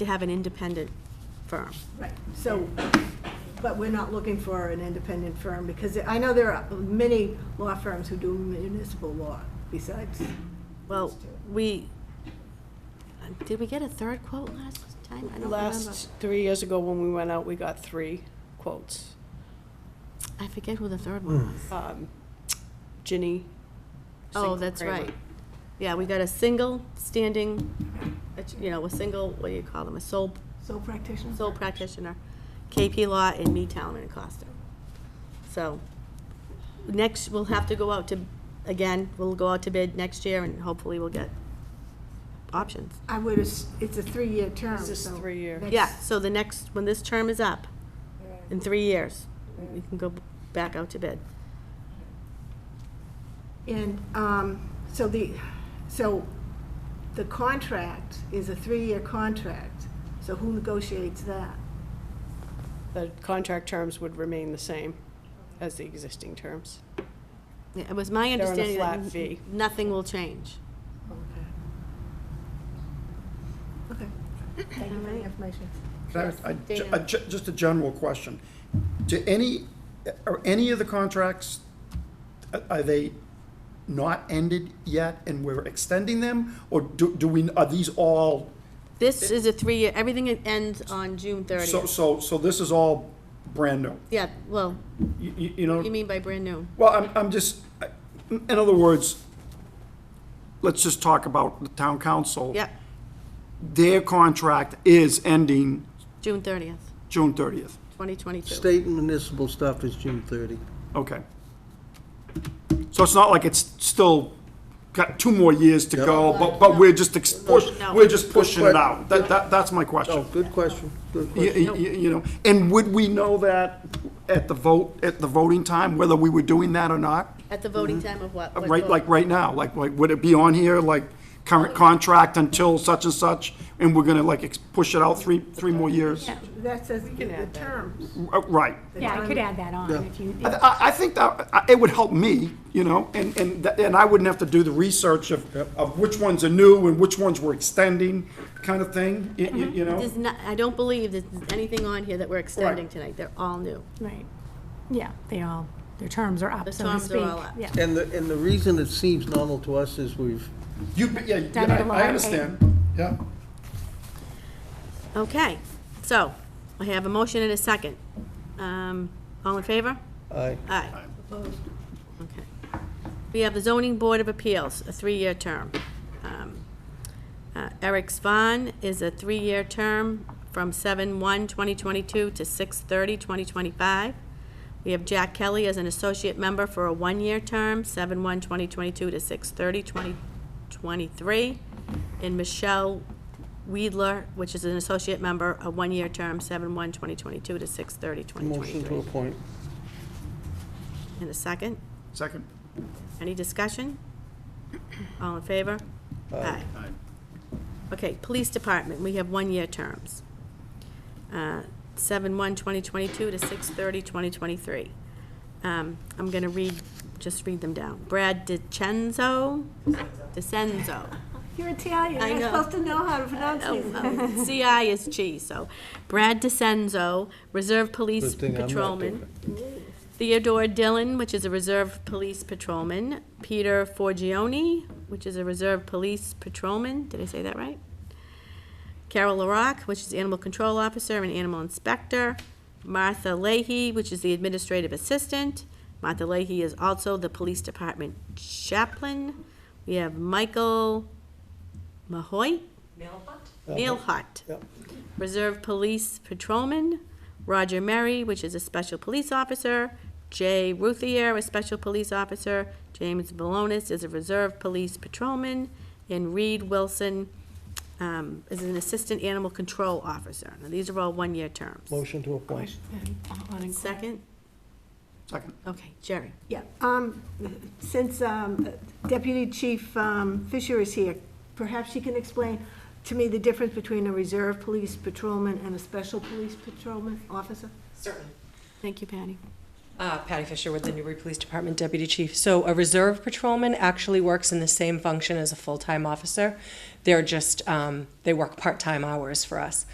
to have an independent firm. Right, so, but we're not looking for an independent firm, because I know there are many law firms who do municipal law besides. Well, we, did we get a third quote last time? I don't remember. Last, three years ago when we went out, we got three quotes. I forget who the third one was. Um, Ginny. Oh, Sinclair that's Kramer. right. Yeah, we got a single standing, uh, you know, a single, what do you call them, a sole, Sole practitioner? sole practitioner, KP Law in Meetown and Acosta. So, next, we'll have to go out to, again, we'll go out to bid next year and hopefully we'll get options. I would, as- it's a three-year term, so. This is three-year. next- Yeah, so the next, when this term is up, in three years, we can go back out to bid. And, um, so the, so the contract is a three-year contract, so who negotiates that? The contract terms would remain the same as the existing terms. Yeah, It was my on a understanding that flat fee. n- nothing will change. Okay. Okay. Thank you for the information. Can I- I- ju- a ju- Just a general question. Do any, are any of the contracts, a- are they not ended yet and we're extending them? Or do, do we, are these all, This is a three-year, everything ends on June so, 30th. so, so this is all brand new? Yeah, well, You- You, you know, you mean by brand new? well, I'm, I'm just, I- in other words, let's just talk about the town council. Yeah, Their contract is ending June 30th, June thirtieth. 2022. State and municipal stuff is June 30. Okay. So it's not like it's still got two more years to go, but, but we're just ex- push, No. we're just pushing it out. That, that, that's my Oh, question. good question, good You, question. you- you know, and would we know that at the vote, at the voting time, whether we were doing that or not? At the voting time of what? what Mm-hmm. Right, vote? like, right now, like, like, would it be on here, like, current contract until such and such, and we're gonna like ex- push it out three, three more years? Yeah. That says the can the add that. terms. Uh, Right. Yeah, I could add that on if you, I- I, I think that, I- it would help me, you know, and, and, th- and I wouldn't have to do the research of, of which ones are new and which ones we're extending, kind of thing, y- y- you, know? There's not, I don't believe there's anything on here that we're extending tonight. They're all new. right. Yeah, they all, their terms are up, Their so to terms are speak. all up. Yeah. And the, and the reason it seems normal to us is we've, You, but yeah, Done it a lot, I, I eh? understand, yeah. Okay, so I have a motion and a second. Um, All in favor? I, Aye. Okay. We have the Zoning Board of Appeals, a three-year term. Um, uh, Eric Svahn is a three-year term from 7/1/2022 to 6/30/2025. We have Jack Kelly as an associate member for a one-year term, 7/1/2022 to 6/30/2023. And Michelle Weidler, which is an associate member, a one-year term, 7/1/2022 to 6/30/2023. motion to appoint. And a second? Second? Any discussion? All in favor? Aye. Okay, Police Department, we have one-year terms. Uh, Seven-one, 2022 to six-thirty, 2023. Um, I'm going to read, just read them down. Brad DiCenzo, DiCenzo. You're Italian, I you're know. supposed to know how to pronounce Oh, these. well, CI is G, so. Brad DiCenzo, Reserve Police Good thing I'm not Patrolman. Theodore Dillon, which is a Reserve Police Patrolman. Peter Forgione, which is a Reserve Police Patrolman. Did I say that right? Carol LaRock, which is Animal Control Officer and Animal Inspector. Martha Leahy, which is the Administrative Assistant. Martha Leahy is also the Police Department Chaplain. We have Michael Mahoy? Neil Hutt. Yep. Reserve Police Patrolman, Roger Murray, which is a special police officer, Jay Ruthier, a special police officer, James Balonis is a reserve police patrolman, and Reed Wilson um, is an assistant animal control officer. Now, these are all one-year terms. Motion to appoint. Second? Second. Okay, Jerry. Yeah, um, since um, Deputy Chief um, Fisher is here, perhaps she can explain to me the difference between a reserve police patrolman and a special police patrolman officer? Certainly. Thank you, Patty. Uh, Patty Fisher with the Newbury Police Department Deputy Chief. So a reserve patrolman actually works in the same function as a full-time officer. They're just, um, they work part-time hours for us.